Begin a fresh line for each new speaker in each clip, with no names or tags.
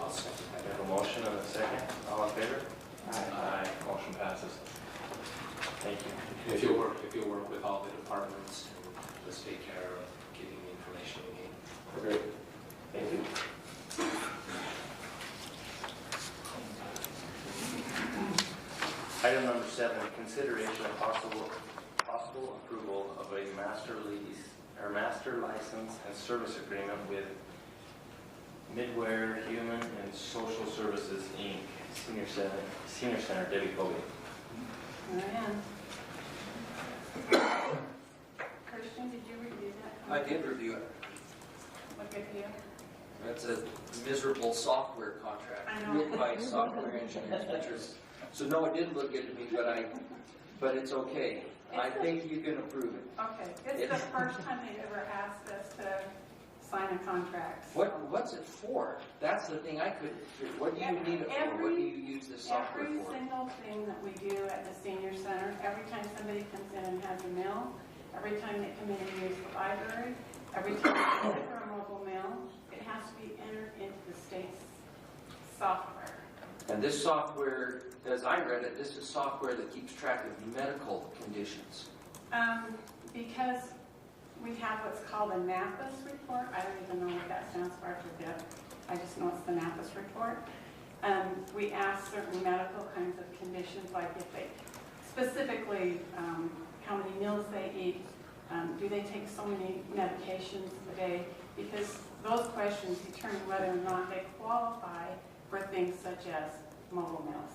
I'll second that. I have a motion and a second. All in favor? Aye. Motion passes. Thank you.
If you'll work, if you'll work with all the departments, and just take care of getting the information we need.
Great. Thank you. Item number seven, consideration of possible, possible approval of a master lease, or master license and service agreement with Midware Human and Social Services, Inc., Senior Center, Senior Center, Debbie Colby.
I am. Christian, did you review that?
I did review it.
What good for you?
That's a miserable software
I
contract
know.
written by software engineers, which is, so no, it didn't look good to me, but I, but it's okay. I
It's a-
think you can approve it.
Okay, this is the first time they've ever asked us to sign a contract. so-
What, what's it for? That's the thing I couldn't figure. What do you need it for? What do you use this software
Every
for?
single thing that we do at the senior center, every time somebody comes in and has a meal, every time they come in and use the library, every time they go for a mobile meal, it has to be entered into the state's software.
And this software, as I read it, this is software that keeps track of medical conditions.
Um, because we have what's called a NAPAS report, I don't even know what that stands for, I forget. I just know it's the NAPAS report. Um, we ask certain medical kinds of conditions, like if they, specifically, um, how many meals they eat, um, do they take so many medications a day? Because those questions determine whether or not they qualify for things such as mobile meals.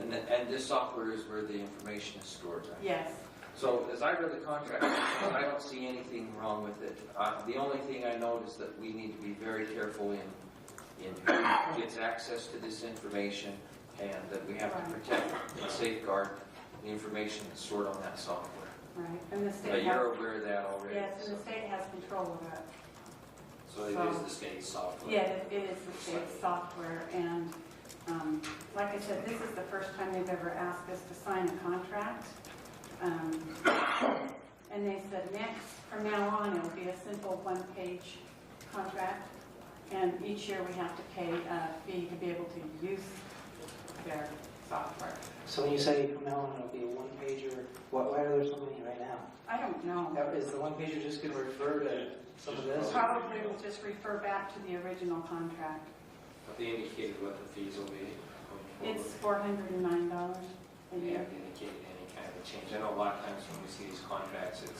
And, th- and this software is where the information is stored, right?
Yes,
So as I read the contract, I don't see anything wrong with it. Uh, The only thing I note is that we need to be very careful in, in who gets access to this information and that we have to protect and safeguard the information that's stored on that software.
right, and the
But
state has,
you're aware of that already.
yes, and the state has control of it.
So it is the state software.
Yeah, it it is the state's software, and um, like I said, this is the first time they've ever asked us to sign a contract. Um, And they said, next, from now on, it'll be a simple one-page contract, and each year we have to pay a fee to be able to use their software.
So when you say from now on it'll be a one pager, why, why are there so many right now?
I don't know.
Now, Is the one pager just gonna refer to some of this?
Probably we'll just refer back to the original contract.
Have they indicated what the fees will be? going
It's
forward?
$409 a
They
year.
haven't indicated any kind of change. I know a lot of times when we see these contracts, it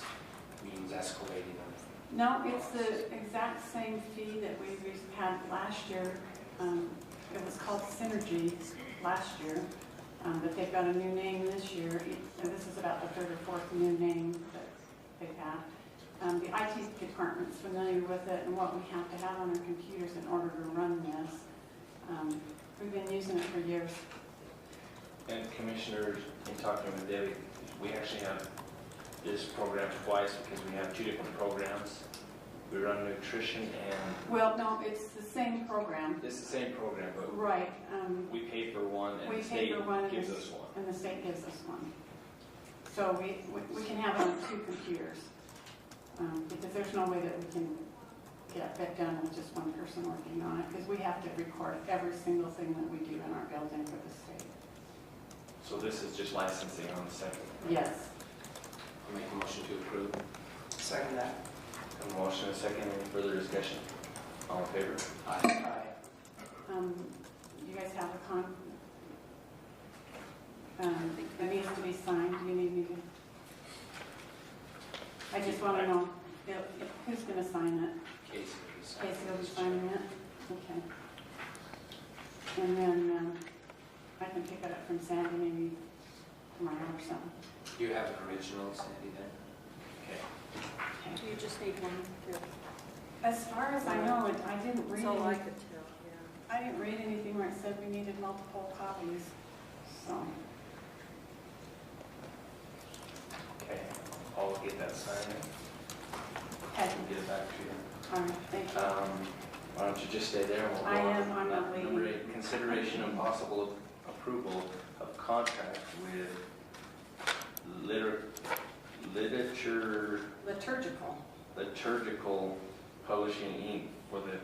means escalating them.
No, it's the exact same fee that we re- had last year. Um, It was called Synergy last year, um, but they've got a new name this year. And this is about the third or fourth new name that they've had. Um, The IT department's familiar with it and what we have to have on our computers in order to run this. Um, We've been using it for years.
And Commissioner, in talking with Debbie, we actually have this program twice because we have two different programs. We run nutrition and,
Well, no, it's the same program,
it's the same program, but
right, um,
we pay for one and
We
the
pay
state
for one and
gives
the-
us one.
and the state gives us one. So we, we- we can have it on two computers, um, because there's no way that we can get that done with just one person working on it, because we have to record every single thing that we do in our building for the state.
So this is just licensing on the second.
Yes.
I'll make a motion to approve.
Second that.
A motion and a second, any further discussion? All in favor?
Aye.
Um, You guys have a con, um, that needs to be signed, do you need me to? I just want to know if- if- who's going to sign it.
Casey. will be signing
Okay, so they'll be
this.
signing it, okay. And then, um, I can pick it up from Sandy maybe tomorrow or something.
Do you have an original, Sandy, then? Okay.
Okay.
You just need one, yeah.
As far as I know, it- I didn't read,
that's all I
any-
could tell, yeah.
I didn't read anything where it said we needed multiple copies, so.
Okay, I'll get that signed
Okay,
and get it back to you.
all right, thank you.
Um, Why don't you just stay there and we'll go on?
I am, I'm not
Number
leaving.
eight, Consideration and possible approval of contract with liter- literature,
Liturgical.
liturgical publishing, Inc. for the